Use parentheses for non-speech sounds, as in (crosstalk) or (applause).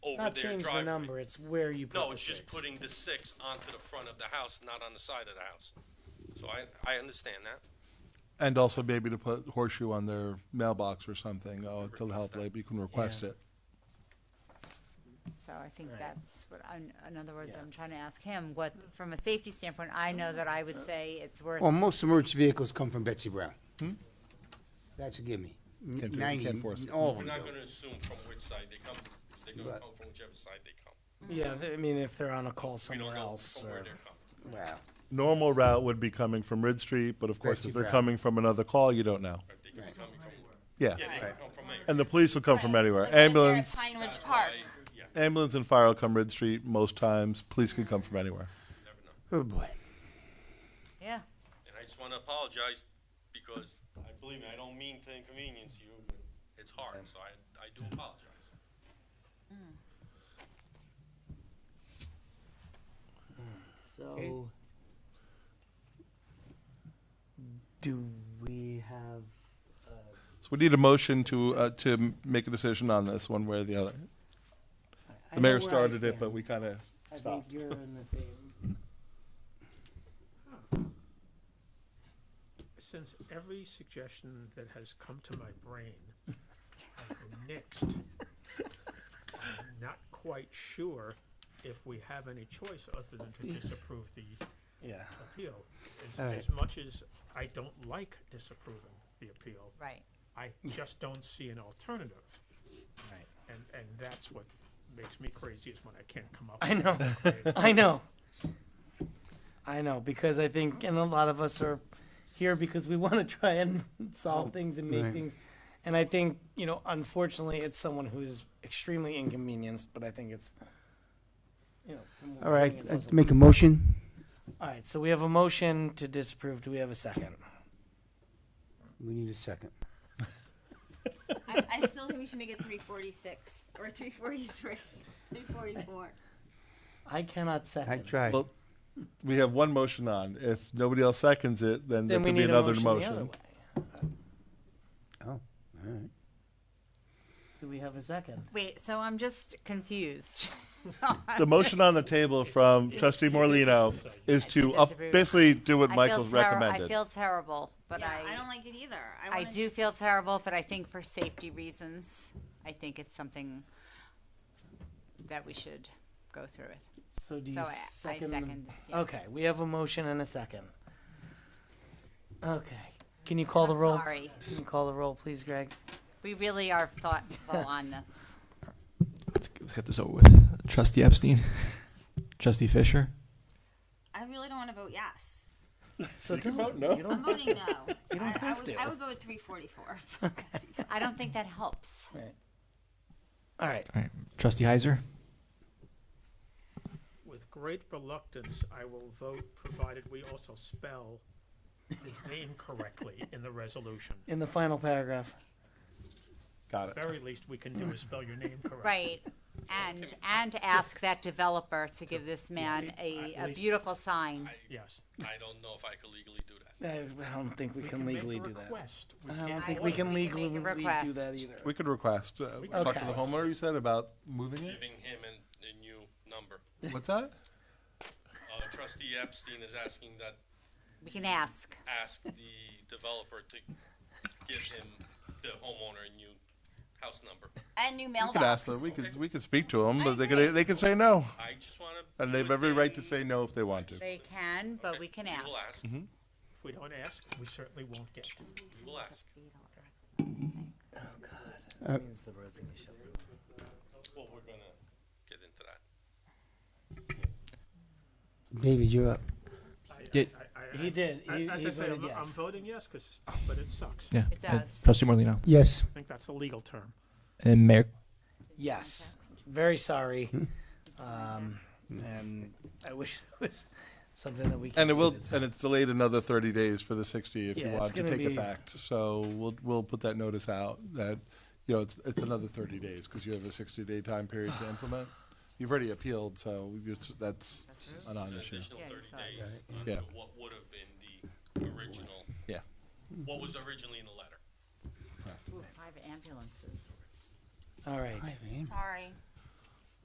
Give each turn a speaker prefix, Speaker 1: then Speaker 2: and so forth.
Speaker 1: over
Speaker 2: Not
Speaker 1: their
Speaker 2: change the
Speaker 1: driveway.
Speaker 2: number, it's where you put the six.
Speaker 1: No, it's just putting the six onto the front of the house, not on the side of the house. So I, I understand that.
Speaker 3: And also maybe to put horseshoe on their mailbox or something, oh, to the
Speaker 1: Request
Speaker 3: help
Speaker 1: that.
Speaker 3: lab, you can request
Speaker 2: Yeah.
Speaker 3: it.
Speaker 4: So I think
Speaker 2: Right.
Speaker 4: that's what, I'm- in other words,
Speaker 2: Yeah.
Speaker 4: I'm trying to ask him what, from a safety standpoint, I know that I would say it's worth,
Speaker 5: Well, most emergency vehicles come from Betsy Brown. That's a gimme.
Speaker 3: do it, you
Speaker 5: Ninety,
Speaker 3: Hmm? can't force it.
Speaker 5: all of
Speaker 1: We're
Speaker 5: them
Speaker 1: not
Speaker 5: do.
Speaker 1: gonna assume from which side they come, from, 'cause they're gonna
Speaker 5: Right.
Speaker 1: come from whichever side they come.
Speaker 2: Yeah, th- I mean, if they're on a
Speaker 1: We
Speaker 2: call
Speaker 1: don't
Speaker 2: somewhere
Speaker 1: know
Speaker 2: else,
Speaker 1: from where
Speaker 2: or,
Speaker 1: they're coming.
Speaker 5: Wow.
Speaker 3: Normal route would be coming from Ridge Street, but of course,
Speaker 5: Betsy
Speaker 3: if they're
Speaker 5: Brown.
Speaker 3: coming from another call, you don't know.
Speaker 1: They could be coming from, yeah,
Speaker 3: Yeah.
Speaker 1: they could come from anywhere.
Speaker 3: And the police will come from
Speaker 6: Like,
Speaker 3: anywhere.
Speaker 6: if they're at
Speaker 3: Ambulance,
Speaker 6: Pine Ridge
Speaker 1: That's
Speaker 6: Park.
Speaker 1: why- Yeah,
Speaker 3: ambulance and fire will come Ridge Street most times. Police can come from anywhere.
Speaker 1: never know.
Speaker 5: Oh, boy.
Speaker 4: yeah.
Speaker 1: And I just wanna apologize because, I believe me, I don't mean to inconvenience you, but it's hard, so I, I do apologize.
Speaker 7: So, do we have, uh,
Speaker 3: So we need a motion to, uh, to m- make a decision on this one way or the other.
Speaker 7: I
Speaker 3: The
Speaker 7: know
Speaker 3: mayor
Speaker 7: where I
Speaker 3: started it, but
Speaker 7: stand.
Speaker 3: we kind of
Speaker 7: I think
Speaker 3: stopped.
Speaker 7: you're in the same.
Speaker 8: since every suggestion that has come to my brain I've nixed, I'm not quite sure if we have any choice other than to disapprove the
Speaker 2: (laughs) yeah.
Speaker 8: appeal. As,
Speaker 5: All right.
Speaker 8: as much as I don't like disapproving the appeal,
Speaker 4: Right.
Speaker 8: I just don't see an alternative.
Speaker 2: Right.
Speaker 8: And, and that's what makes me crazy is when I can't come up.
Speaker 2: I
Speaker 8: with
Speaker 2: know.
Speaker 8: creative-
Speaker 2: I know. I know because I think, and a lot of us are here because we (laughs) want to try and solve things and make
Speaker 5: Oh, Right.
Speaker 2: things. And I think, you know, unfortunately, it's someone who is extremely inconvenienced, but I think it's, you know. from what
Speaker 5: All
Speaker 2: we're
Speaker 5: right,
Speaker 2: hearing, it's
Speaker 5: I'd
Speaker 2: also-
Speaker 5: make a motion.
Speaker 2: All right, so we have a motion to disapprove. Do we have a second?
Speaker 5: We need a second.
Speaker 6: I, I still think we should make it three forty-six or three forty-three, three forty-four.
Speaker 2: I cannot
Speaker 5: I
Speaker 2: second.
Speaker 5: tried.
Speaker 3: Well, We have one motion on. If nobody else seconds it, then there
Speaker 2: Then we
Speaker 3: could be
Speaker 2: need a
Speaker 3: another
Speaker 2: motion the other
Speaker 3: motion.
Speaker 2: way.
Speaker 5: Oh, all right.
Speaker 2: Do we have a second?
Speaker 4: Wait, so I'm just confused.
Speaker 3: The motion on the table from trustee Morlino is to
Speaker 4: It's
Speaker 3: up,
Speaker 4: disapprove.
Speaker 3: basically do what
Speaker 4: I feel
Speaker 3: Michael's
Speaker 4: terri- I
Speaker 3: recommended.
Speaker 4: feel terrible, but
Speaker 6: Yeah, I
Speaker 4: I,
Speaker 6: don't like it either. I
Speaker 4: I
Speaker 6: wanna-
Speaker 4: do feel terrible, but I think for safety reasons, I think it's something that we should go through with.
Speaker 2: So do you
Speaker 4: So I- I
Speaker 2: second? the-
Speaker 4: second, yeah.
Speaker 2: Okay, we have a motion and a second. Okay, can you call the roll?
Speaker 4: Sorry,
Speaker 2: Can you call the roll, please, Greg?
Speaker 4: we really are thoughtful on this.
Speaker 9: Let's, let's get this over with. Trustee Epstein,
Speaker 4: (laughs)
Speaker 9: Trustee Fisher,
Speaker 6: I really don't wanna
Speaker 9: (laughs)
Speaker 6: vote yes.
Speaker 2: So
Speaker 3: You can
Speaker 2: don't-
Speaker 3: vote no.
Speaker 2: You
Speaker 6: I'm
Speaker 2: don't.
Speaker 6: voting no.
Speaker 2: You don't
Speaker 6: I- I
Speaker 2: have
Speaker 6: would-
Speaker 2: to.
Speaker 6: I would go with three forty-four. (laughs)
Speaker 4: I don't think that helps.
Speaker 2: All right.
Speaker 9: Trustee Heiser,
Speaker 8: With great reluctance, I will vote provided we also spell his name correctly in the resolution.
Speaker 2: In the final paragraph.
Speaker 3: Got it.
Speaker 8: Very least we can do is spell your name correctly.
Speaker 4: Right, and, and ask that developer to give this man a,
Speaker 8: At
Speaker 4: a
Speaker 8: least-
Speaker 4: beautiful sign.
Speaker 8: Yes.
Speaker 1: I don't know if I could legally do that.
Speaker 2: I I don't think we
Speaker 8: We
Speaker 2: can
Speaker 8: make a
Speaker 2: legally do that.
Speaker 8: request. We
Speaker 2: I don't
Speaker 8: can't
Speaker 2: think
Speaker 8: vote.
Speaker 2: we can
Speaker 4: We can
Speaker 2: legally
Speaker 4: make a
Speaker 2: do
Speaker 4: request.
Speaker 2: that either.
Speaker 3: We could request, uh, talk to
Speaker 2: Okay.
Speaker 3: the homeowner, you said, about moving
Speaker 4: (laughs)
Speaker 3: it?
Speaker 1: Giving him a, a new number.
Speaker 3: What's that?
Speaker 1: Uh, trustee Epstein is asking that,
Speaker 4: We can ask,
Speaker 1: ask the developer to give him, the homeowner, a new house number.
Speaker 6: And new
Speaker 3: We could ask them,
Speaker 6: mailbox.
Speaker 3: we could, we could speak to them, but they
Speaker 6: agree.
Speaker 3: could, they could say no.
Speaker 1: I just wanna. do
Speaker 3: And they have
Speaker 1: it
Speaker 3: every right to
Speaker 1: in-
Speaker 3: say no if they want to.
Speaker 4: they can, but
Speaker 1: Okay,
Speaker 4: we can
Speaker 1: We will
Speaker 4: ask.
Speaker 1: ask, we
Speaker 8: If we don't ask, we certainly won't get.
Speaker 1: will ask.
Speaker 2: That means the resolution.
Speaker 1: Well, we're gonna get into that.
Speaker 5: David, you're up.
Speaker 8: I-
Speaker 9: Yeah.
Speaker 8: I- I-
Speaker 2: He did.
Speaker 8: I-
Speaker 2: He,
Speaker 8: As
Speaker 2: he
Speaker 8: I say,
Speaker 2: voted
Speaker 8: I'm, I'm
Speaker 2: yes.
Speaker 8: voting yes, 'cause- but it sucks.
Speaker 9: yeah,
Speaker 4: It
Speaker 9: uh,
Speaker 4: does.
Speaker 9: Trustee Morlino,
Speaker 5: Yes,
Speaker 8: I think that's the legal term.
Speaker 9: and Mayor.
Speaker 2: Yes. Very sorry. Um, and I wish (laughs) there was something that we. could
Speaker 3: And it
Speaker 2: do
Speaker 3: will,
Speaker 2: that's-
Speaker 3: and it's delayed another thirty days for the sixty if you
Speaker 2: Yeah, it's
Speaker 3: want to
Speaker 2: gonna
Speaker 3: take
Speaker 2: be-
Speaker 3: effect. So we'll, we'll put that notice out that, you know, it's, it's another thirty days because you have a sixty day time period to implement. You've already appealed, so you- that's a
Speaker 1: It's an
Speaker 3: non-issue.
Speaker 1: additional
Speaker 4: Yeah, you
Speaker 1: thirty
Speaker 4: saw it.
Speaker 1: days
Speaker 3: Yeah.
Speaker 1: under what would have been the original,
Speaker 3: Yeah.
Speaker 1: what was originally in the letter.
Speaker 4: Ooh, Five ambulances.
Speaker 2: All right.
Speaker 5: I mean,
Speaker 6: Sorry.